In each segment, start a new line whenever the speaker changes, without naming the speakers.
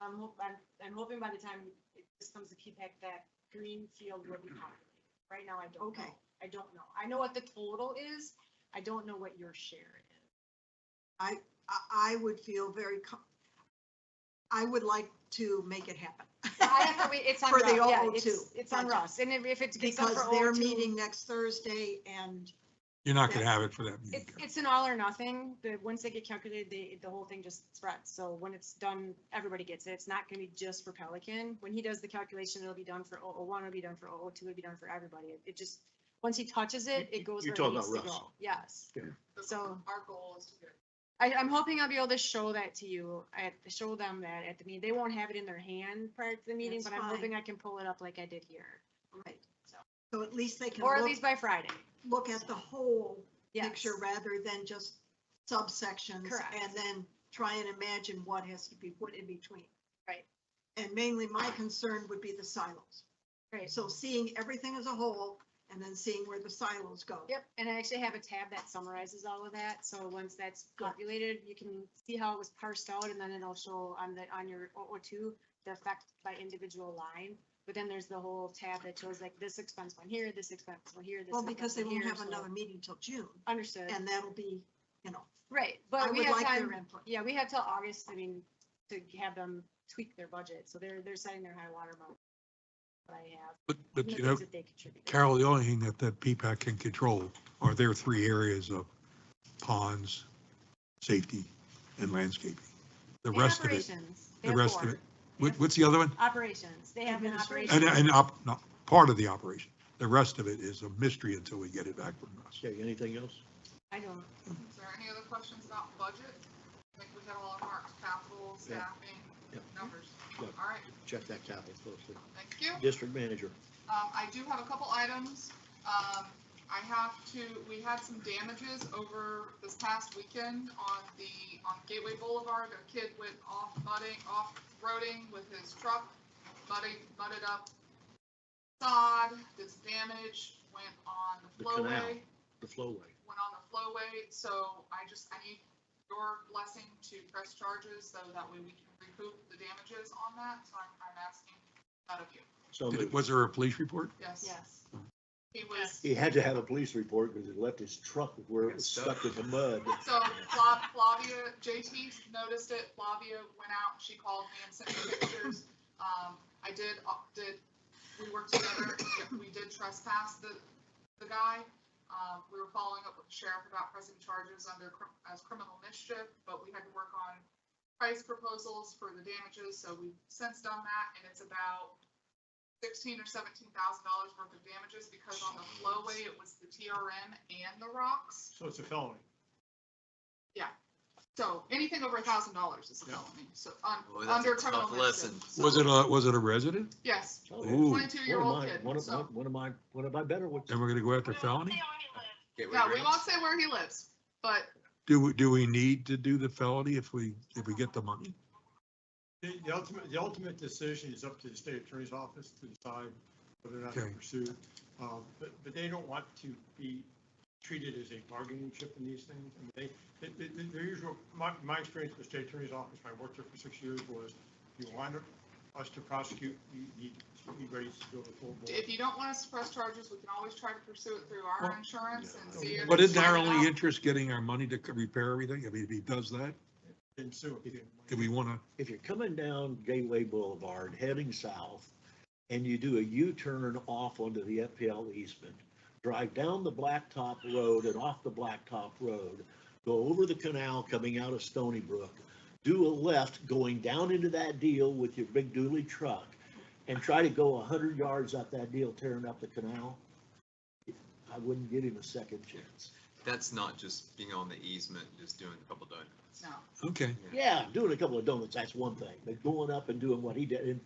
I'm hope, I'm, I'm hoping by the time it this comes to P-PAC that green field will be populated. Right now, I don't
Okay.
know. I don't know. I know what the total is. I don't know what your share is.
I, I would feel very com- I would like to make it happen.
I have to wait, it's on
For the
Russ, yeah,
002
it's, it's on
project.
Russ, and if- if it's. gets done
Because
for
they're
002,
meeting next Thursday and,
You're not gonna have it for that meeting.
It's, it's an all or nothing, but once they get calculated, they, the whole thing just spreads, so when it's done, everybody gets it, it's not gonna be just for Pelican. When he does the calculation, it'll be done for 001. one, it'll be done for 002. two, it'll be done for everybody, It- it just, once he touches it, it goes
you're
where it
talking
needs to
about Russ.
go, yes. So-
Our goal is to get
I, I'm hoping I'll be able to show that to you, at, show them that at the meeting, they won't have it in their hand prior to the meeting,
That's
but I'm
fine.
hoping I can pull it up like I did here.
right, so at least they can
Or at
look,
least by Friday,
look at the whole
yes.
picture rather than just subsections.
Correct.
And then try and imagine what has to be put in between.
Right.
And mainly my concern would be the silos.
Right.
So seeing everything as a whole and then seeing where the silos go.
Yep, and I actually have a tab that summarizes all of that, so once that's
Good.
populated, you can see how it was parsed out, and then it'll show on the, on your O two, the effect by individual line, but then there's the whole tab that shows like this expense one here, this expense one here, this.
Well,
expense
because they
one
won't
here,
have
so-
another meeting till June
Understood,
and that'll be, you know,
right,
I
but we
would
have
like their
time,
input.
yeah, we have till August, I mean, to have them tweak their budget, so they're, they're setting their high water mark. But I have.
But,
and
but
the
you know,
things that they contribute.
Carol, the only thing that, that P-PAC can control are their three areas of ponds, safety, and landscaping. The
And
rest of it,
operations, they
the
have
rest of
four.
it. What, what's the other one?
Operations, they have an
Administration.
operation.
And, and up, no, part of the operation. The rest of it is a mystery until we get it back from us.
Okay, anything else?
I don't,
Is there any other questions about budget? I think we got all our marks, capital,
Yeah.
staffing,
Yeah.
numbers.
Yeah.
All right,
Check that capital closely.
thank you.
District manager.
Um, I do have a couple items. Um, I have to, we had some damages over this past weekend on the, on Gateway Boulevard. A kid went off mudding, off roading with his truck, mudding, mudded up sod, did some damage, went on
The
the
canal.
flowway.
the flowway.
went on the flowway, so I just, I need your blessing to press charges, so that way we can recoup the damages on that, so I'm, I'm asking out of you,
So
Did it-
moved.
Was there a police report?
yes.
yes.
He was,
he had to have a police report because he left his truck where it was stuck in the mud.
so Fla- Flavia, JT noticed it, Flavia went out, she called me and sent me pictures. Um, I did, uh, did, we worked together, we did trespass the, the guy. Um, we were following up with the sheriff about pressing charges under, cr- as criminal mischief, but we had to work on price proposals for the damages, so we've since done that, and it's about sixteen or seventeen thousand dollars worth of damages, because on the flowway, it was the TRM and the rocks.
So it's a felony.
So anything over a thousand dollars is a
Yeah.
felony, so un
Boy, that's
under
a
criminal
tough
mischief.
lesson.
So-
Was it a, was it a resident?
Yes,
Oh, yeah.
Ooh,
One of
22-year-old
my-
kid,
One of,
so-
one of my, one of my better ones.
and we're gonna go after felony?
Gateway
yeah, we
Greens.
won't say where he lives, but
Do, we- do we need to do the felony if we, if we get the money?
The, the ultimate, the ultimate decision is up to the state attorney's office to decide whether or not to
Okay.
pursue. Uh, but, but they don't want to be treated as a bargaining chip in these things. And they, they- they, they- their usual, my, my experience with the state attorney's office, when I worked there for six years, was if you want us to prosecute, you need to be ready to go to full board.
if you don't want us to press charges, we can always try to pursue it through
Well,
our insurance and see if.
But
it's
isn't our
lining
only
up.
interest getting our money to c- repair everything? I mean, if he does that,
Then sue them.
do we wanna?
If you're coming down Gateway Boulevard, heading south, and you do a U-turn off onto the FPL Eastman, drive down the Blacktop Road and off the Blacktop Road, go over the canal coming out of Stony Brook, do a left going down into that deal with your big dually truck, and try to go a hundred yards up that deal tearing up the canal, I wouldn't give him a second chance.
That's not just being on the easement, just doing a couple donuts.
No.
Okay,
Yeah, doing a couple of donuts, that's one thing, but going up and doing what he did, and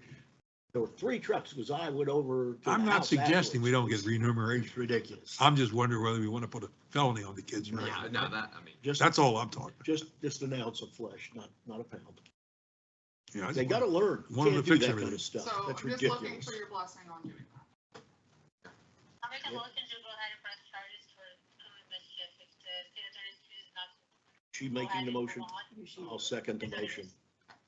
there were three trucks, because I went over. to
I'm
the
not
house
suggesting we don't
afterwards.
get remuneration.
It's ridiculous.
I'm just wondering whether we wanna put a felony on the kids. or not.
Yeah, no, that, I mean,
Just,
That's all I'm talking.
just, just an ounce of flesh, not, not a pound.
You know, I
They
just-
gotta learn, you
Wanted to
can't do
fix
that kind
everything.
of stuff,
So
that's
I'm just looking
ridiculous.
for your blessing on doing that.
I'll make
Yep.
a motion to go ahead and press charges for criminal mischief if the state attorney chooses not to.
She
go
making
ahead
the
and move
motion,
on.
I'll second the
If the
motion.
state